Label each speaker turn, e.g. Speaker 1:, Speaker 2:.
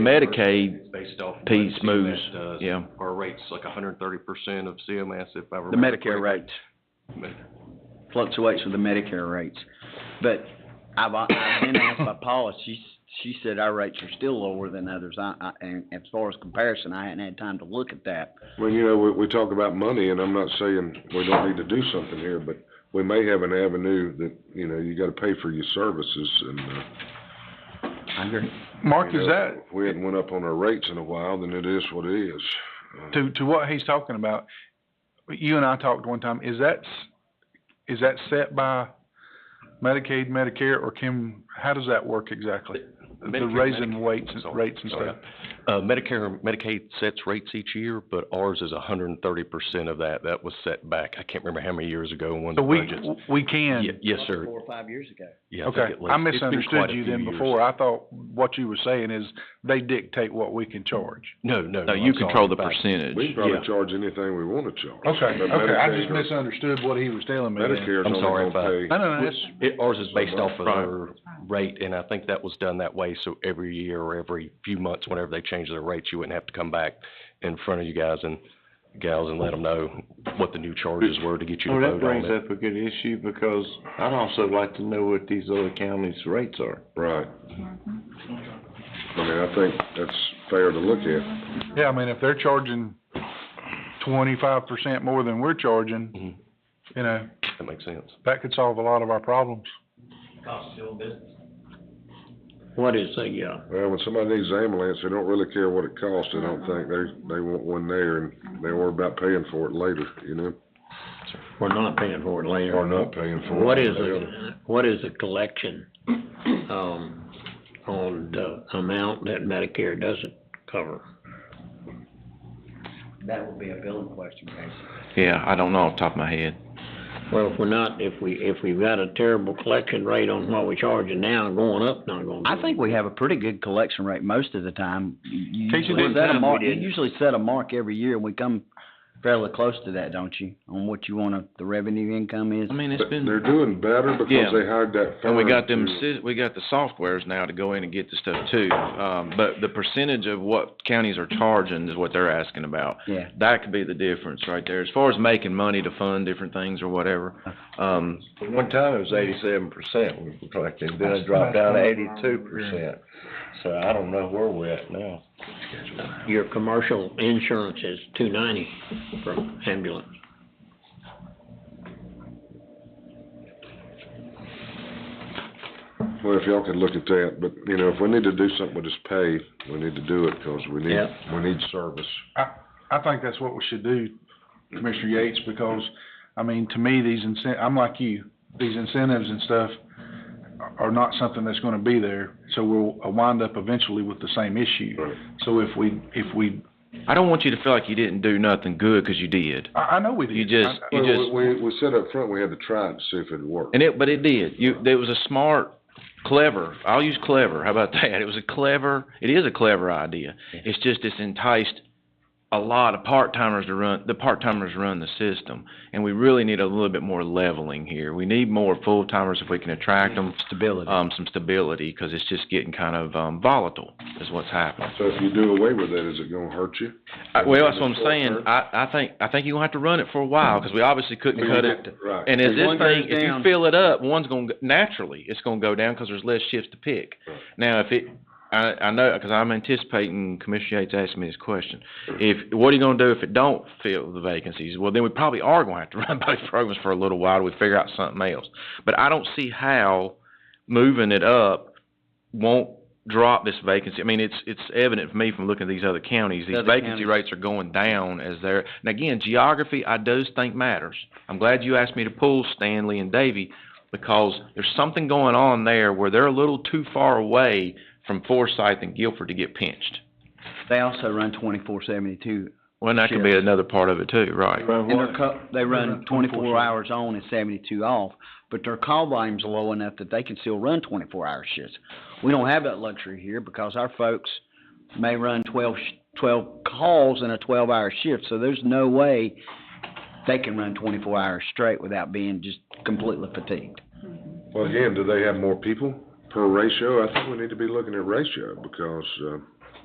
Speaker 1: Medicaid
Speaker 2: based off. what
Speaker 1: piece
Speaker 2: CMS
Speaker 1: moves,
Speaker 2: does.
Speaker 1: yeah,
Speaker 2: Our rate's like hundred and thirty percent of CMS if I
Speaker 3: The
Speaker 2: remember.
Speaker 3: Medicare
Speaker 2: correctly.
Speaker 3: rates fluctuates with the Medicare rates. But I've, I've been asked by Paula, she, she said our rates are still lower than others. I, I, and as far as comparison, I hadn't had time to look at that.
Speaker 4: Well, you know, we, we talk about money, and I'm not saying we don't need to do something here, but we may have an avenue that, you know, you gotta pay for your services, and, uh.
Speaker 3: I agree.
Speaker 5: Mark,
Speaker 4: you
Speaker 5: is
Speaker 4: know,
Speaker 5: that,
Speaker 4: If we hadn't went up on our rates in a while, then it is what it is. Uh,
Speaker 5: to, to what he's talking about, you and I talked one time, is that, s- is that set by Medicaid, Medicare, or can, how does that work exactly? The
Speaker 2: Medicare,
Speaker 5: raising
Speaker 2: Medicaid,
Speaker 5: weights, and
Speaker 2: sorry,
Speaker 5: rates and
Speaker 2: sorry.
Speaker 5: stuff?
Speaker 2: Uh, Medicare and Medicaid sets rates each year, but ours is hundred and thirty percent of that. That was set back, I can't remember how many years ago when the
Speaker 5: So we,
Speaker 2: budgets.
Speaker 5: we can,
Speaker 2: Ye- Yes, sir.
Speaker 3: Four or five years ago.
Speaker 2: Yeah, think
Speaker 5: okay,
Speaker 2: at least.
Speaker 5: I
Speaker 2: It's been quite
Speaker 5: misunderstood
Speaker 2: a
Speaker 5: you
Speaker 2: few
Speaker 5: then
Speaker 2: years.
Speaker 5: before, I thought what you were saying is they dictate what we can charge.
Speaker 2: No, no,
Speaker 1: no,
Speaker 2: no,
Speaker 1: you
Speaker 2: I'm sorry.
Speaker 1: control the
Speaker 2: In fact,
Speaker 4: We can
Speaker 1: percentage.
Speaker 2: Yeah.
Speaker 4: probably charge anything we wanna charge.
Speaker 5: Uh, Okay,
Speaker 4: But
Speaker 5: okay, I
Speaker 4: Medicaid
Speaker 5: just
Speaker 4: or-
Speaker 5: misunderstood what he was telling me then.
Speaker 4: Medicare's
Speaker 2: I'm sorry
Speaker 4: only
Speaker 2: about-
Speaker 4: gonna
Speaker 5: No,
Speaker 4: pay,
Speaker 5: no, no, that's,
Speaker 2: It, ours is based off of
Speaker 1: Right.
Speaker 2: their rate, and I think that was done that way, so every year or every few months, whenever they change their rates, you wouldn't have to come back in front of you guys and gals and let them know what the new charges were to get you to
Speaker 6: Well, that
Speaker 2: vote on
Speaker 6: brings
Speaker 2: it.
Speaker 6: up a good issue because I'd also like to know what these other counties' rates are.
Speaker 4: right. I mean, I think that's fair to look at.
Speaker 5: yeah, I mean, if they're charging twenty-five percent more than we're charging,
Speaker 1: Mm-hmm.
Speaker 5: you know,
Speaker 2: That makes sense.
Speaker 5: that could solve a lot of our problems.
Speaker 6: What is that, yeah?
Speaker 4: Well, when somebody needs an ambulance, they don't really care what it costs, I don't think. They, they want one there, and they worry about paying for it later, you know?
Speaker 7: We're not paying for it later.
Speaker 4: Or not paying for it.
Speaker 7: What is, the- what is the collection, um, on the amount that Medicare doesn't cover?
Speaker 3: That would be a billing question, Casey.
Speaker 1: Yeah, I don't know off the top of my head.
Speaker 7: Well, if we're not, if we, if we've got a terrible collection rate on what we're charging now, going up, not gonna.
Speaker 3: I
Speaker 7: do
Speaker 3: think we have a pretty good collection rate most of the time. You
Speaker 5: Casey,
Speaker 3: usually
Speaker 5: one
Speaker 3: set a
Speaker 7: time we
Speaker 3: mark- You
Speaker 7: did.
Speaker 3: usually set a mark every year, and we come fairly close to that, don't you? On what you wanna, the revenue income is.
Speaker 1: I mean, it's
Speaker 4: But
Speaker 1: been,
Speaker 4: They're doing better
Speaker 1: Yeah.
Speaker 4: because they hired that firm.
Speaker 1: and we got them,
Speaker 4: to-
Speaker 1: sys- we got the softwares now to go in and get the stuff too. Um, but the percentage of what counties are charging is what they're asking about.
Speaker 3: Yeah.
Speaker 1: That could be the difference right there, as far as making money to fund different things or whatever. Um,
Speaker 6: One time it was eighty-seven percent we collected, then it dropped down to eighty-two percent. So I don't know where we're at now.
Speaker 7: it. Your commercial insurance is two ninety for ambulance.
Speaker 4: Well, if y'all could look at that, but, you know, if we need to do something with this pay, we need to do it, cause we need,
Speaker 7: Yeah.
Speaker 4: we need service.
Speaker 5: I think that's what we should do, Commissioner Yates, because, I mean, to me, these incent, I'm like you, these incentives and stuff are not something that's gonna be there, so we'll uh, wind up eventually with the same issue.
Speaker 4: Right.
Speaker 5: So if we, if we,
Speaker 1: I don't want you to feel like you didn't do nothing good, cause you did.
Speaker 5: I, I know we did.
Speaker 1: You just,
Speaker 5: I-
Speaker 1: you
Speaker 4: Well,
Speaker 1: just.
Speaker 4: We, we- we said up front, we had to try it to see if it'd work.
Speaker 1: And it, but it did. You, it was a smart, clever, I'll use clever, how about that? It was a clever, it is a clever idea. It's just it's enticed a lot of part-timers to run, the part-timers run the system. And we really need a little bit more leveling here. We need more full-timers if we can attract them,
Speaker 3: Stability.
Speaker 1: um, some stability, cause it's just getting kind of, um, volatile is what's happening.
Speaker 4: So if you do away with that, is it gonna hurt you?
Speaker 1: I- Well, that's what I'm
Speaker 4: Short
Speaker 1: saying.
Speaker 4: term?
Speaker 1: I, I think, I think you're gonna have to run it for a while, cause we obviously couldn't cut it.
Speaker 4: Right.
Speaker 1: And as
Speaker 3: If
Speaker 1: this
Speaker 3: one goes
Speaker 1: thing, if you
Speaker 3: down-
Speaker 1: fill it up, one's gonna, go- naturally, it's gonna go down because there's less shifts to pick.
Speaker 4: Right.
Speaker 1: Now, if it, I, I know, because I'm anticipating Commissioner Yates asking me this question. If, what are you gonna do if it don't fill the vacancies? Well, then we probably are gonna have to run both programs for a little while till we figure out something else. But I don't see how moving it up won't drop this vacancy. I mean, it's, it's evident for me from looking at these other counties. These
Speaker 3: Other
Speaker 1: vacancy
Speaker 3: counties.
Speaker 1: rates are going down as they're, and again, geography, I do think matters. I'm glad you asked me to pull Stanley and Davy because there's something going on there where they're a little too far away from Forsyth and Guilford to get pinched.
Speaker 3: They also run twenty-four seventy-two
Speaker 1: Well, and that could be another part of it too, right?
Speaker 6: From
Speaker 3: And
Speaker 6: what?
Speaker 3: their co- they run twenty-four hours on and seventy-two off, but their call volume's low enough that they can still run twenty-four hour shifts. We don't have that luxury here because our folks may run twelve, sh- twelve calls in a twelve-hour shift, so there's no way they can run twenty-four hours straight without being just completely fatigued.
Speaker 4: Well, again, do they have more people per ratio? I think we need to be looking at ratio because, uh,